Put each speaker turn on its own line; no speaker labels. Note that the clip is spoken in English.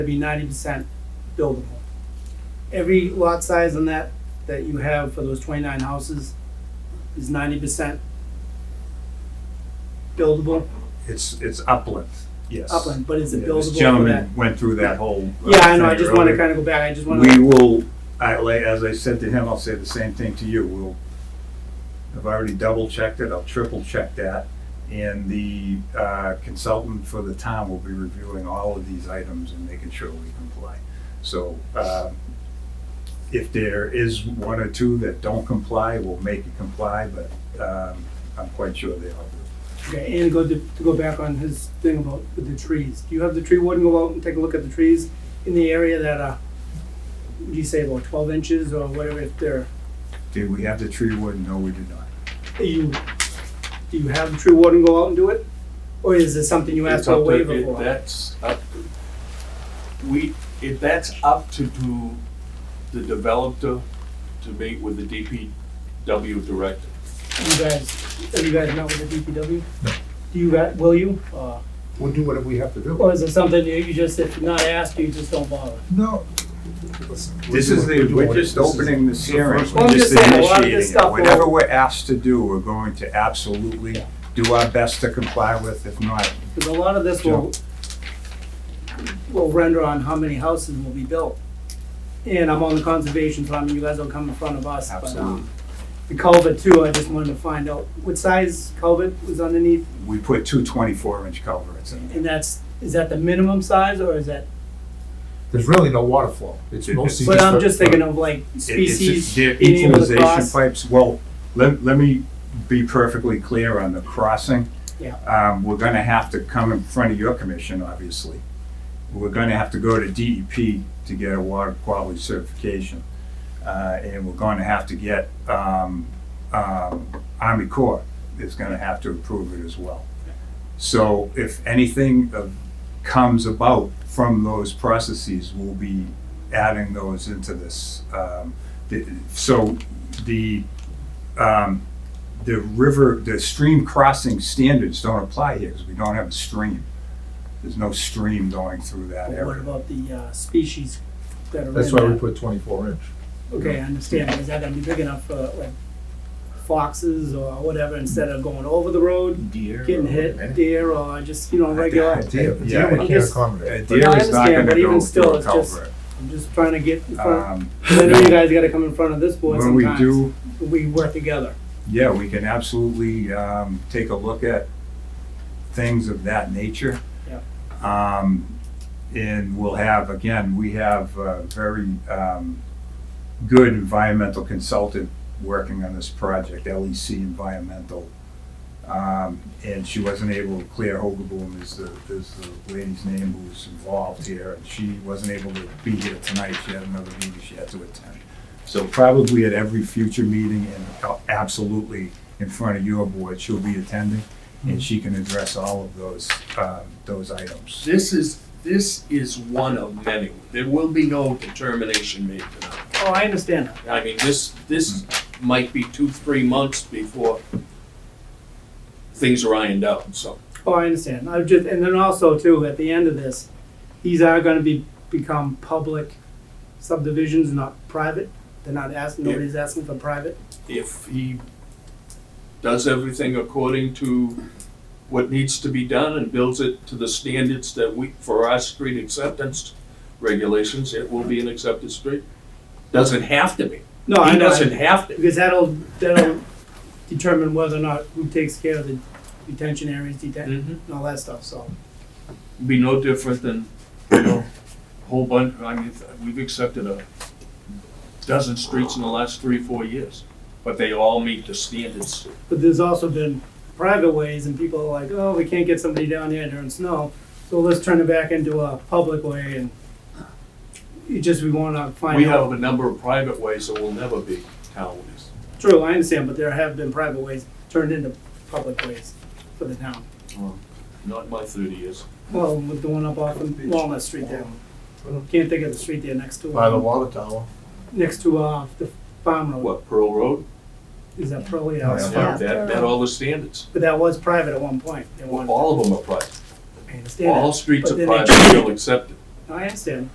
to be ninety percent buildable. Every lot size on that, that you have for those twenty-nine houses is ninety percent buildable
It's, it's upland, yes.
upland, but is it
Yeah,
buildable
This
for that?
gentleman went through that whole. uh,
Yeah, I know, I
thing
just wanna
earlier.
kinda go back, I just
We
wanna,
will, I, like, as I said to him, I'll say the same thing to you, we'll, I've already double checked it, I'll triple check that. And the uh, consultant for the town will be reviewing all of these items and making sure we comply. So, um, if there is one or two that don't comply, we'll make it comply, but, um, I'm quite sure they all do.
okay, and go to, to go back on his thing about with the trees. Do you have the tree warden go out and take a look at the trees in the area that are, what do you say, about twelve inches or whatever, if they're,
Did we have the tree warden? No, we did not.
you, do you have the tree warden go out and do it? Or is it something you ask
It's
for a
up to-
waiver
it-
for?
That's up, we, if that's up to do the developer to meet with the DPW director.
You guys, have you guys met with the DPW? No. Do you, guys- will you? Uh,
We'll do whatever we have to do.
Or is it something that you just, if not asked, you just don't bother?
No. This is the, we're just opening this hearing,
Well,
we're
I'm
just
just saying, a lot of this
initiating it.
stuff will-
Whatever we're asked to do, we're going to absolutely do our best to comply with, if not,
Because a lot of this will, will render on how many houses will be built. And I'm on the conservation, so I mean, you guys don't come in front of us. but, um,
Absolutely.
The culvert too, I just wanted to find out what size culvert was underneath,
we put two twenty-four inch culverts in.
and that's, is that the minimum size, or is that?
There's really no water flow. It's
It-
mostly.
But I'm
a-
just thinking of like
It- it's just
species,
their
being able to
Equalization
cross.
pipes, well, let, let me be perfectly clear on the crossing.
Yeah.
Um, we're gonna have to come in front of your commission, obviously. We're gonna have to go to DEP to get a water quality certification. Uh, and we're gonna have to get, um, um, Army Corps is gonna have to approve it as well. So if anything of, comes about from those processes, we'll be adding those into this. Um, the- So the, um, the river, the stream crossing standards don't apply here because we don't have a stream. There's no stream going through that
But what
area.
about the uh, species that are in that?
That's why we put twenty-four inch.
Okay, I understand, but is that gonna be big enough for like foxes or whatever, instead of going over the road,
Deer.
getting hit, deer, or just, you know, uh, regular?
Deer,
Yeah,
deer we
I'm
can't
just-
A
accommodate.
deer
I
is not
understand,
gonna
but even
go
still,
through a
it's just-
culvert.
I'm just trying to get in front,
Um,
I know you guys gotta come in front of this board
When we
sometimes,
do
we work together.
Yeah, we can absolutely um, take a look at things of that nature. Um, And we'll have, again, we have a very um, good environmental consultant working on this project, LEC Environmental. Um, And she wasn't able, Claire Hogeboom is the, is the lady's name who's involved here, and she wasn't able to be here tonight, she had another meeting she had to attend. So probably at every future meeting and absolutely in front of your board, she'll be attending and she can address all of those, um, those items.
This is, this is one of many. There will be no determination made tonight.
Oh, I understand that,
I mean, this, this might be two, three months before things are ironed out, so.
oh, I understand, I just, and then also too, at the end of this, these are gonna be, become public subdivisions, not private, they're not asking,
Yeah.
nobody's asking for private.
if he does everything according to what needs to be done and builds it to the standards that we, for our street acceptance regulations, it will be an accepted street. Doesn't have to be.
No, I
He
know, I-
doesn't have to.
Because that'll, that'll determine whether or not who takes care of the detention areas, detention,
Be
and all that stuff, so.
no different than, you know, a whole bunch, I mean, we've accepted a dozen streets in the last three, four years, but they all meet the standards.
But there's also been private ways and people are like, oh, we can't get somebody down here during snow, so let's turn it back into a public way and it just, we wanna
We
find out.
have a number of private ways that will never be town ways.
True, I understand, but there have been private ways turned into public ways for the town.
Um, Not in my thirty years.
Well, with the one up off of Walnut Street there. Can't think of the street there next to,
By the
uh,
water tower.
next to, uh, the farm road,
What, Pearl Road?
is that probably,
Oh,
uh,
yeah.
Yeah, that, that all the standards.
But that was private at one point. They wanted
All of them are private.
to understand
All
that. But
streets are
then they
private, still accepted.
I understand.